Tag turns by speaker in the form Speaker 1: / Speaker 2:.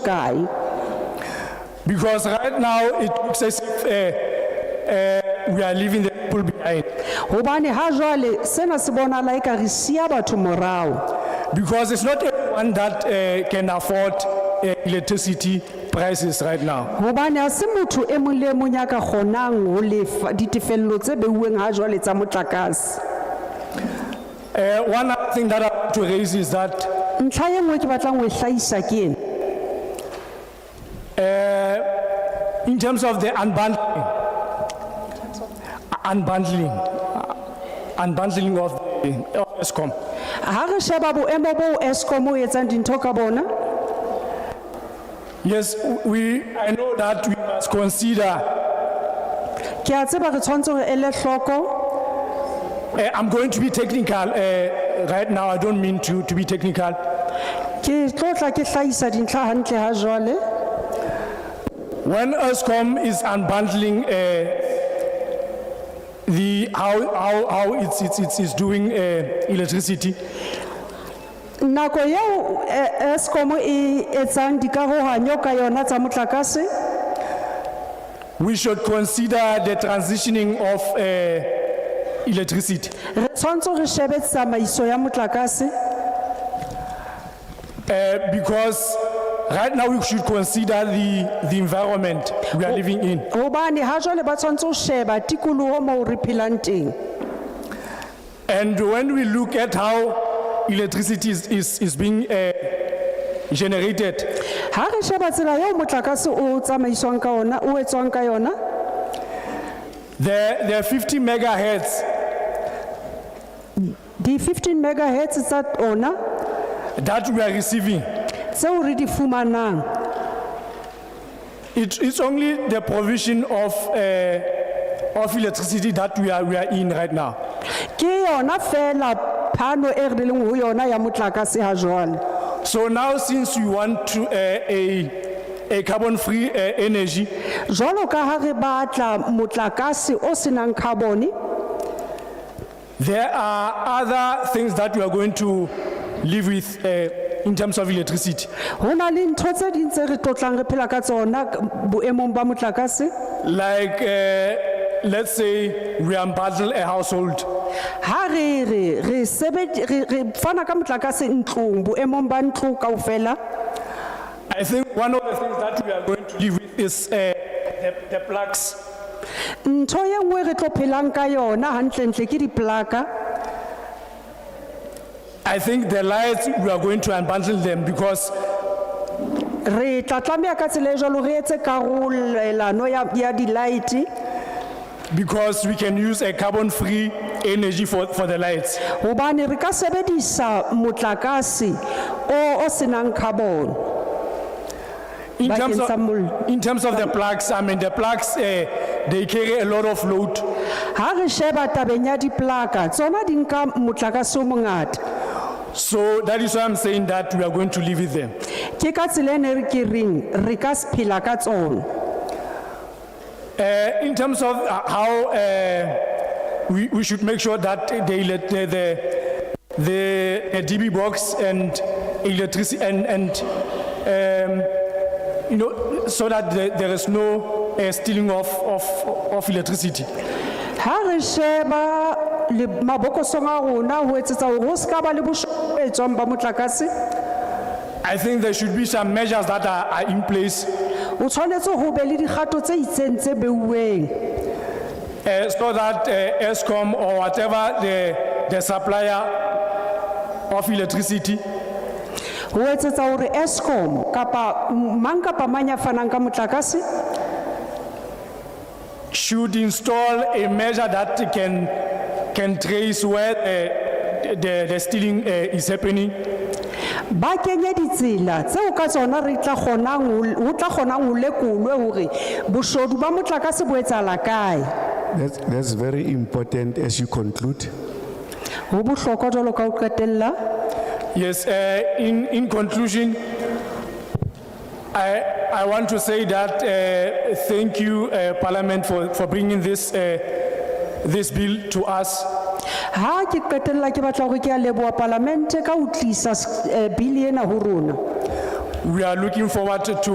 Speaker 1: kae
Speaker 2: Because right now it looks as if uh, uh, we are leaving the people behind.
Speaker 1: gobane ha jwale sena se bonala e ka re sia batho morago
Speaker 2: Because it's not everyone that uh, can afford uh, electricity prices right now.
Speaker 1: gobane ga se motho e mong le e mong ya ka kgonang go lefa ditefelelo tse beuweng ga jwale tsa motlakase
Speaker 2: Uh, one other thing that I want to raise is that
Speaker 1: ntlha ye nngwe ke batlang go e tlaisa ke ena
Speaker 2: in terms of the unbundling, unbundling, uh, unbundling of the of ESCOM,
Speaker 1: ga re sheba boemo boo escom o etsang dintho ka bona
Speaker 2: yes, we I know that we must consider.
Speaker 1: ke a tseba re tshwanetse gore ele tlhoko
Speaker 2: Uh, I'm going to be technical uh, right now. I don't mean to to be technical.
Speaker 1: ke tlotla ke tlhaisa dintlha gantle ga jwale
Speaker 2: When ESCOM is unbundling uh, the how how how it's it's it's, it's doing uh, electricity,
Speaker 1: nako yeo escom e etsang dikaroganyo ka yona tsa motlakase
Speaker 2: we should consider the transitioning of uh, electricity.
Speaker 1: re tshwanetse re shebe tsamaiso ya motlakase
Speaker 2: Uh, because right now we should consider the, the environment we are living in.
Speaker 1: gobane ga jale ba tshwanetse go sheba tikologo moo re phelang teng
Speaker 2: And when we look at how electricity is, is, is being uh, generated,
Speaker 1: ga re sheba tsela yeo motlakase o tsamaisiwang ka ona o etswang ka yona
Speaker 2: the, the 50 megahertz
Speaker 1: di-fifteen megahertz tsa ona
Speaker 2: that we are receiving,
Speaker 1: tseo re di fumanang
Speaker 2: it, it's only the provision of, uh, of electricity that we are, we are in right now.
Speaker 1: ke yona fela phano e re leng go yona ya motlakase ga jale
Speaker 2: So now since we want to, uh, a, a carbon-free uh, energy,
Speaker 1: jalo ka ga re batla motlakase o senang carbone
Speaker 2: There are other things that we are going to live with uh, in terms of electricity.
Speaker 1: go na le ntho tse ding tse re tlotlang re phela ka tsona k- boemong ba motlakase
Speaker 2: Like, uh, let's say we unbundle a household.
Speaker 1: ha re re re sebedi re re fana ka motlakase ntlong boemong ba ntlo kaofela
Speaker 2: I think one of the things that we are going to live with is uh, the, the plugs.
Speaker 1: ntho ye nngwe re tlo phelang ka yona gantlentle ke diplaka
Speaker 2: I think the lights, we are going to unbundle them because
Speaker 1: re tla tlameya ka tsela e jalo re etse karolelano ya ya di-light
Speaker 2: because we can use a carbon-free energy for, for the lights.
Speaker 1: gobane re ka sebedisa motlakase o o senang carbon
Speaker 2: In
Speaker 1: Like
Speaker 2: terms
Speaker 1: in
Speaker 2: of,
Speaker 1: Istanbul.
Speaker 2: in terms of the plugs, I mean, the plugs, uh, they carry a lot of load.
Speaker 1: ha re sheba tabeng ya diplaka tsona di nka motlakase o mongata
Speaker 2: So that is why I'm saying that we are going to live with them.
Speaker 1: ke ka tsela e ne re ke reng re ka se phela ka tsona
Speaker 2: Uh, in terms of uh, how uh, we, we should make sure that the, elec- the, the, the uh, DB box and electricity and, and um, you know, so that the, there is no uh, stealing of, of, of electricity.
Speaker 1: ha re sheba le mabokosong a rona ho etsetsa hore ho se ka ba le boshwetswang ba motlakase
Speaker 2: I think there should be some measures that are, are in place
Speaker 1: o tshwanetse ho be le dikgato tse itseng tse beuweng
Speaker 2: uh, so that uh, ESCOM or whatever the, the supplier of electricity
Speaker 1: ho etsetsa hore escom kapa m- mang kapa mang ya fanang ka motlakase
Speaker 2: should install a measure that can, can trace where the, the, the stealing uh, is happening.
Speaker 1: ba kenye ditsela tseo ka tsona re tla kgonang ho l- ho tla kgonang ho lekolwe hore boshodu ba motlakase bo etsahala kae
Speaker 3: That's, that's very important as you conclude.
Speaker 1: ho bohlokwa jwalo ka ho qetella
Speaker 2: Yes, uh, in, in conclusion, I, I want to say that uh, thank you, uh, Parliament, for, for bringing this, uh, this bill to us.
Speaker 1: ha ke qetella ke batla hore ke a leboha palamente ka ho tlisa s- eh, bili ena ho rona
Speaker 2: We are looking forward to